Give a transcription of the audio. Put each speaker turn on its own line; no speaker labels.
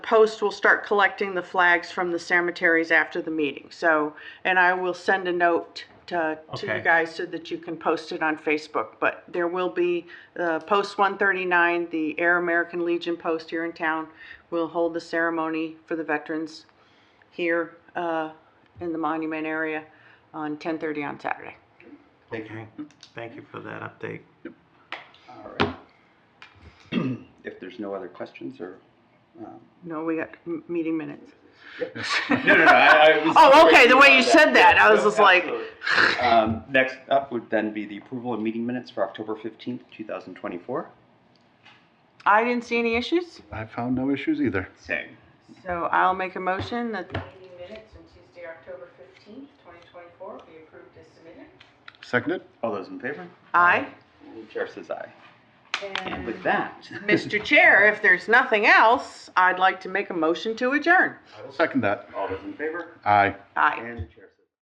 Post will start collecting the flags from the cemeteries after the meeting, so, and I will send a note to, to you
Okay.
guys so that you can post it on Facebook, but there will be, uh, Post one thirty-nine, the Air American Legion Post here in town, will hold the ceremony for the veterans here, uh, in the monument area on ten thirty on Saturday.
Thank you, thank you for that update.
All right. If there's no other questions or, um.
No, we got m- meeting minutes.
No, no, no, I, I was.
Oh, okay, the way you
Yeah,
said that, I was
no,
just like-
absolutely. Um, next up would then be the approval of meeting minutes for October fifteenth, two thousand twenty-four.
I didn't see any issues,
I found no issues either.
Same.
so I'll make a motion that. Meeting minutes on Tuesday, October fifteenth, twenty twenty-four, be approved as submitted.
Seconded?
All those in favor?
Aye.
And Chair says aye. And with that.
Mr. Chair, if there's nothing else, I'd like to make a motion to adjourn.
Second that.
All those in favor?
Aye.
Aye.
And the chair